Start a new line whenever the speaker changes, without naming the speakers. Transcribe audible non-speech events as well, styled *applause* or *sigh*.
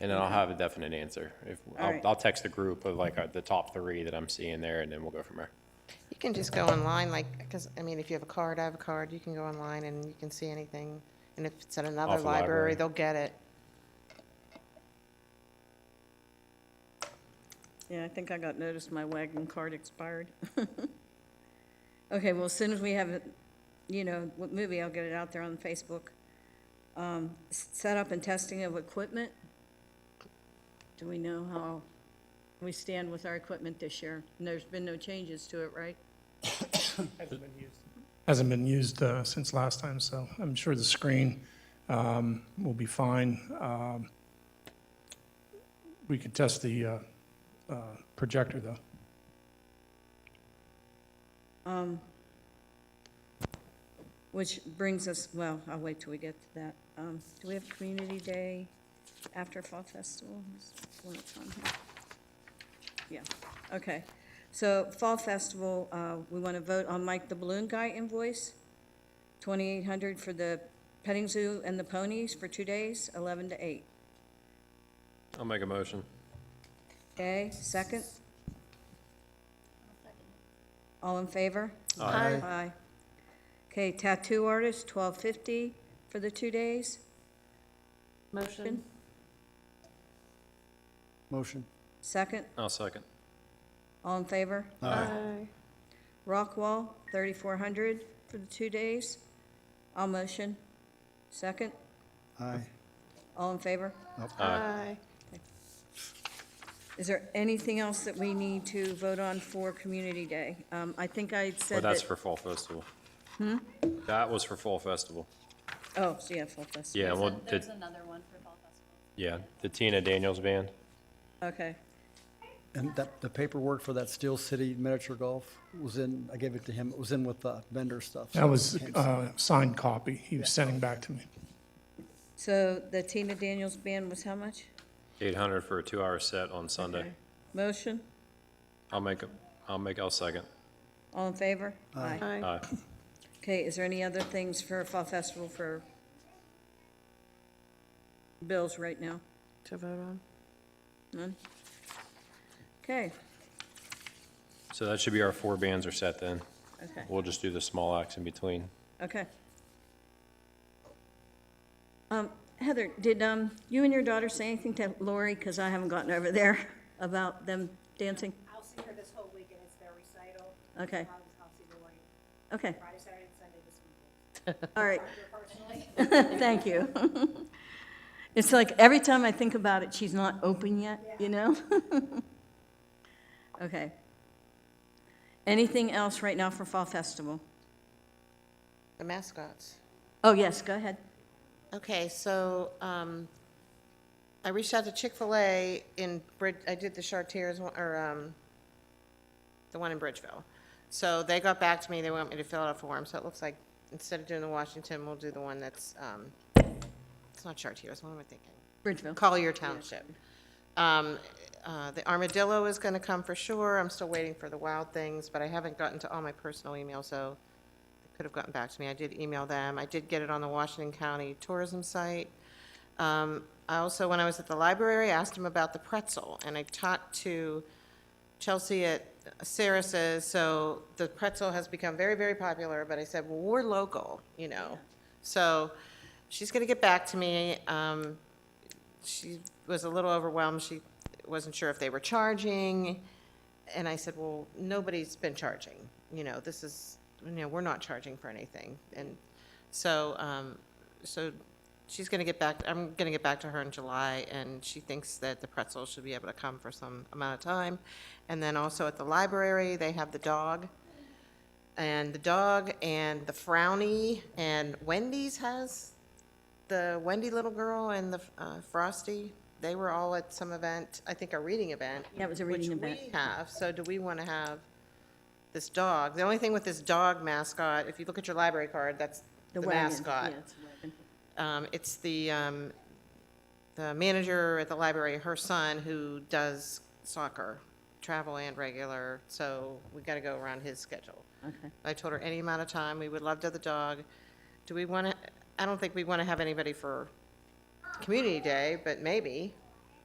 And then I'll have a definite answer. If, I'll,
Alright.
I'll text a group of like uh, the top three that I'm seeing there, and then we'll go from there.
You can just go online, like, because, I mean, if you have a card, I have a card, you can go online and you can see anything. And if it's at another
Off the library.
library, they'll get it.
Yeah, I think I got noticed my wagon card expired. *laughs* Okay, well, as soon as we have, it, you know, what movie, I'll get it out there on Facebook. Um, s- Setup and testing of equipment. Do we know how we stand with our equipment this year? And there's been no changes to it, right?
Hasn't been used uh, since last time, so I'm sure the screen um, will be fine. Um, We could test the uh, uh, projector, though.
Which brings us, well, I'll wait till we get to that. Um, do we have Community Day after Fall Festival? Is one that's on here? Yeah, okay. So Fall Festival, uh, we want to vote on Mike the Balloon Guy invoice, twenty-eight hundred for the petting zoo and the ponies for two days, eleven to eight.
I'll make a motion.
Okay, second? All in favor?
Aye.
Aye. Okay, tattoo artist, twelve fifty for the two days.
Motion?
Motion.
Second,
I'll second.
all in favor?
Aye.
Rockwall, thirty-four hundred for the two days. I'll motion. Second,
Aye.
all in favor?
Aye.
Is there anything else that we need to vote on for Community Day? Um, I think I
Well,
said
that's
that.
for Fall Festival. Hmm? That was for Fall Festival.
Oh, so yeah, Fall Festival.
Yeah, well,
There's
the-
another one for Fall Festival.
yeah, the Tina Daniels Band.
Okay,
And that, the paperwork for that Steel City miniature golf was in, I gave it to him, it was in with the vendor stuff. so
That was
it can't-
a uh, signed copy he was sending back to me.
so the Tina Daniels Band was how much?
Eight hundred for a two-hour set on Sunday.
Okay. Motion,
I'll make a, I'll make, I'll second. Uh,
all in favor? Aye.
Aye.
Aye.
Okay, is there any other things for Fall Festival for bills right now?
To vote on?
None? Okay,
So that should be our four bands are set then.
okay,
We'll just do the small acts in between.
okay. Um, Heather, did, um, you and your daughter say anything to Lori, because I haven't gotten over there, *laughs* about them dancing?
I'll see her this whole weekend, it's their recital.
Okay.
I'll, I'll see Lori
Okay,
Friday, Saturday, and Sunday this weekend.
all right, *laughs*
Her personally,
thank you. *laughs* It's like, every time I think about it, she's not open yet, you know? *laughs* Okay. Anything else right now for Fall Festival?
The mascots.
Oh, yes, go ahead.
Okay, so um, I reached out to Chick-fil-A in Brid, I did the Chartiers, one- or um, the one in Bridgeville. So they got back to me, they want me to fill out a form, so it looks like instead of doing the Washington, we'll do the one that's, um, it's not Chartiers, what am I thinking?
Bridgeville.
Collier Township. Um, uh, The armadillo is going to come for sure. I'm still waiting for the wild things, but I haven't gotten to all my personal emails, so they could have gotten back to me. I did email them. I did get it on the Washington County Tourism site. Um, I also, when I was at the library, I asked them about the pretzel, and I talked to Chelsea at Saris's, so the pretzel has become very, very popular, but I said, well, we're local, you know? So she's going to get back to me. Um, she was a little overwhelmed. She wasn't sure if they were charging. And I said, well, nobody's been charging. You know, this is, you know, we're not charging for anything. And so, um, so she's going to get back, I'm going to get back to her in July, and she thinks that the pretzel should be able to come for some amount of time. And then also at the library, they have the dog and the dog and the frowny and Wendy's has the Wendy little girl and the uh, Frosty. They were all at some event, I think a reading event.
Yeah, it was a reading event.
Which we have, so do we want to have this dog? The only thing with this dog mascot, if you look at your library card, that's the
wagon,
mascot.
yeah, it's a wagon.
Um, It's the, um, the manager at the library, her son, who does soccer, travel and regular, so we got to go around his schedule.
Okay.
I told her any amount of time, we would love to have the dog. Do we want to, I don't think we want to have anybody for Community Day, but maybe,